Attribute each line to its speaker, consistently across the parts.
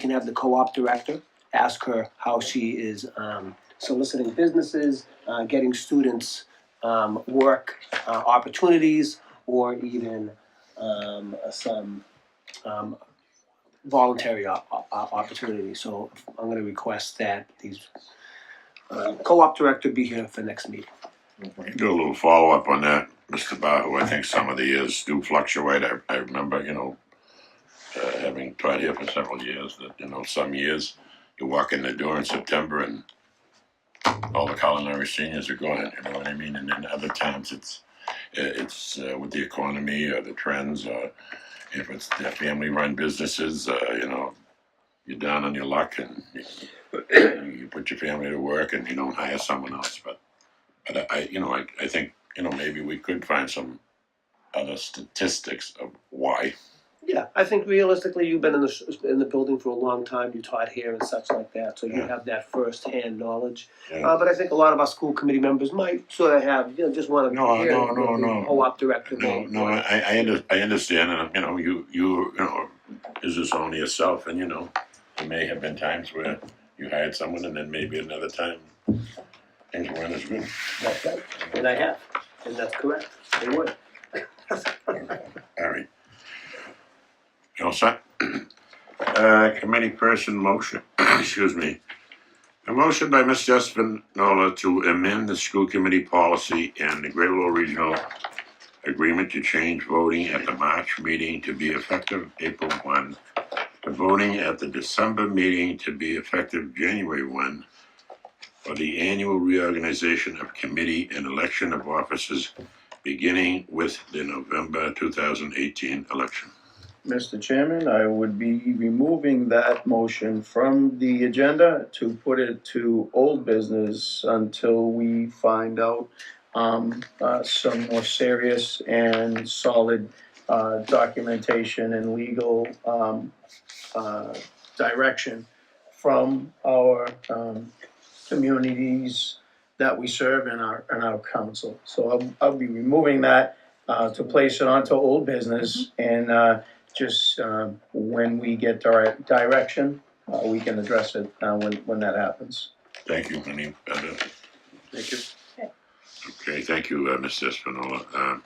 Speaker 1: can have the co-op director ask her how she is um, soliciting businesses, uh, getting students um, work uh, opportunities, or even um, some um, voluntary op- op- op- opportunities. So I'm going to request that these uh, co-op director be here for next meeting.
Speaker 2: Do a little follow up on that, Mr. Bahu. I think some of the years do fluctuate. I, I remember, you know, uh, having taught here for several years, that, you know, some years you walk in the door in September and all the culinary seniors are gone, you know what I mean? And then other times it's, it's uh, with the economy or the trends or if it's the family run businesses, uh, you know, you're down on your luck and you, you put your family to work and you don't hire someone else. But but I, I you know, I, I think, you know, maybe we could find some other statistics of why.
Speaker 1: Yeah, I think realistically, you've been in the in the building for a long time. You taught here and such like that, so you
Speaker 2: Yeah.
Speaker 1: have that firsthand knowledge.
Speaker 2: Yeah.
Speaker 1: Uh, but I think a lot of our school committee members might sort of have, you know, just want to
Speaker 2: No,
Speaker 1: hear
Speaker 2: no,
Speaker 1: what
Speaker 2: no,
Speaker 1: the
Speaker 2: no.
Speaker 1: co-op director.
Speaker 2: No,
Speaker 1: may
Speaker 2: no,
Speaker 1: want.
Speaker 2: I, I, under, I understand, and you know, you, you, you know, is this only yourself, and you know, there may have been times where you hired someone, and then maybe another time things weren't as good.
Speaker 1: That's right, and I have, and that's correct. They would.
Speaker 2: All right. You all set? Uh, committee person motion, excuse me. A motion by Ms. Jessvin Nola to amend the school committee policy and the Great Lowell Regional Agreement to change voting at the March meeting to be effective April one, to voting at the December meeting to be effective January one, for the annual reorganization of committee and election of officers beginning with the November 2018 election.
Speaker 3: Mr. Chairman, I would be removing that motion from the agenda to put it to old business until we find out um, uh, some more serious and solid uh, documentation and legal um, uh, direction from our um, communities that we serve and our, and our council. So I'll, I'll be removing that uh, to place it onto old business and uh, just um, when we get dire- direction, uh, we can address it uh, when, when that happens.
Speaker 2: Thank you, Any other?
Speaker 3: Thank you.
Speaker 2: Okay, thank you, uh, Mr. Espinola. Um,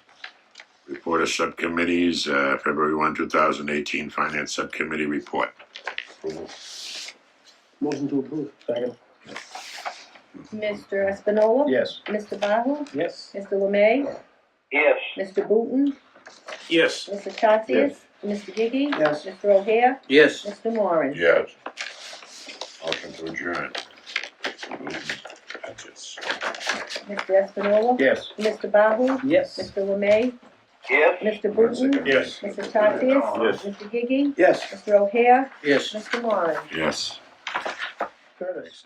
Speaker 2: Report of subcommittees, uh, February 1, 2018 Finance Subcommittee Report.
Speaker 1: Motion to approve.
Speaker 3: Second.
Speaker 4: Mr. Espinola?
Speaker 3: Yes.
Speaker 4: Mr. Bahu?
Speaker 1: Yes.
Speaker 4: Mr. Lemay?
Speaker 5: Yes.
Speaker 4: Mr. Booton?
Speaker 5: Yes.
Speaker 4: Mr. Tatsias? Mr. Gigi?
Speaker 3: Yes.
Speaker 4: Mr. O'Hare?
Speaker 5: Yes.
Speaker 4: Mr. Moran?
Speaker 2: Yes. Motion to adjourn. Moved. That's it.
Speaker 4: Mr. Espinola?
Speaker 3: Yes.
Speaker 4: Mr. Bahu?
Speaker 1: Yes.
Speaker 4: Mr. Lemay?
Speaker 5: Yes.
Speaker 4: Mr. Booton?
Speaker 3: Yes.
Speaker 4: Mr.
Speaker 5: Yes.
Speaker 4: Tatsias? Mr. Gigi?
Speaker 3: Yes.
Speaker 4: Mr. O'Hare?
Speaker 3: Yes.
Speaker 4: Mr. Moran?
Speaker 2: Yes.
Speaker 3: Curtis.